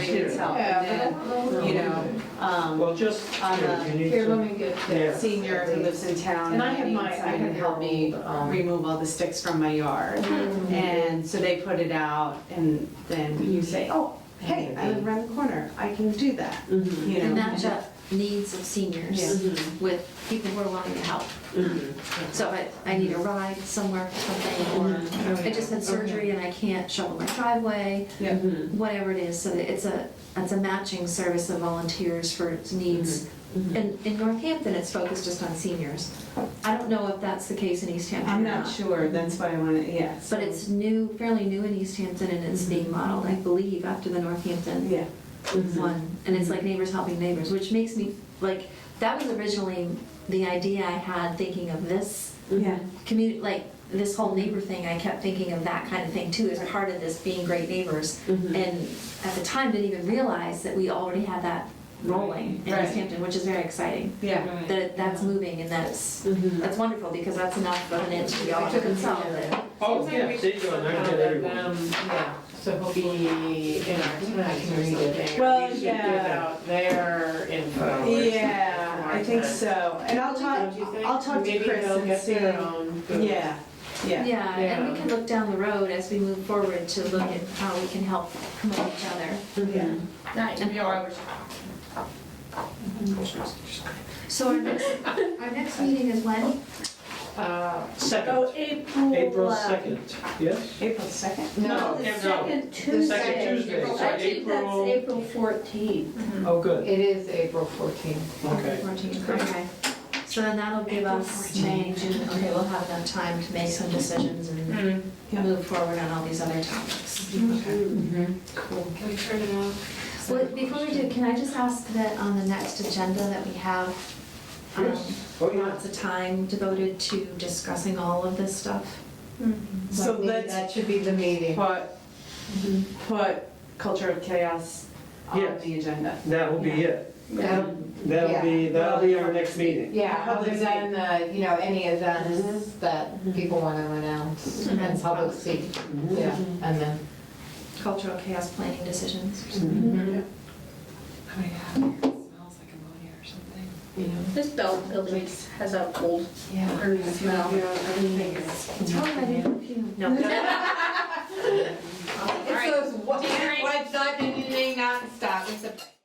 needs help, and Yeah, then, but I don't you know, um, Well, just, On you know, the- you need Here, to, let me get Yeah. this. senior who lives in town. And I have needs my- Mm-hmm. I somebody have to help me your old, um, remove all the sticks from my yard. And so they put it out, and then you say, oh, hey, I live around the corner, I can do that, you And know? match up needs of seniors with people who are willing to help. So if I, I need a Mm-hmm. ride somewhere for something, Oh, or I just had surgery and I can't shovel my driveway, Yeah. whatever it is, so that it's a, it's a matching service of volunteers for its needs. Mm-hmm. And in Northampton, it's focused just on seniors. I don't know if that's the case in East Hampton. I'm or not sure, that's why I wanna, yes. But it's new, fairly new in East Hampton, and it's Mm-hmm. being modeled, I believe, after the Northampton Yeah, Mm-hmm. one, and it's like neighbors helping neighbors, which makes me, like, that was originally the idea I had thinking of this yeah. community, like, this whole neighbor thing, I kept thinking of that kind of thing too, as a part of this being great neighbors. Mm-hmm. And at the time, didn't even realize that we already had that rolling in Right. East Hampton, which is very exciting. Yeah, That that's moving and that's, that's wonderful, because that's enough of an itch we all Took took them and solved it. oh, yeah, there you go, and I get everyone. Yeah, so he'll be in our tonight or something. Well, We should give yeah. out their info. or something yeah, I think like that. so, and I'll talk, Don't you think? I'll talk to Chris Maybe they'll and get see. their own. booth. Yeah, yeah, Yeah, and we Yeah. can look down the road as we move forward to look at how we can help promote each other. yeah. So our next, our next meeting is when? Uh, Second, April. Oh, April uh, second, yes? April second? No, the No, second The Tuesday. second Tuesday, so I think that's April, April fourteenth. oh, good, It is April 14th. okay. Fourteenth, okay. So then that'll give us May, June, okay, we'll have enough time to make some decisions and Yeah. move forward on all these other topics. Mm-hmm. Can we turn it off? Well, before we do, can I just ask that on the next agenda that we have, um, Oh, yeah. lots of time devoted to discussing all of this stuff? Mm-hmm. So Maybe let's- That should be the meeting. Put, put culture of chaos on Yes. the agenda. That'll be it, That'll- that'll be, that'll be our next meeting. Yeah, Public other than, uh, you know, any events that people want to announce and public speak. Mm-hmm. Yeah, and then. Cultural chaos planning decisions. Oh my god, it smells like ammonia or something, you know? This belt building has a old Yeah. earth smell. Everything is. It's probably my new perfume. No. It's those white, white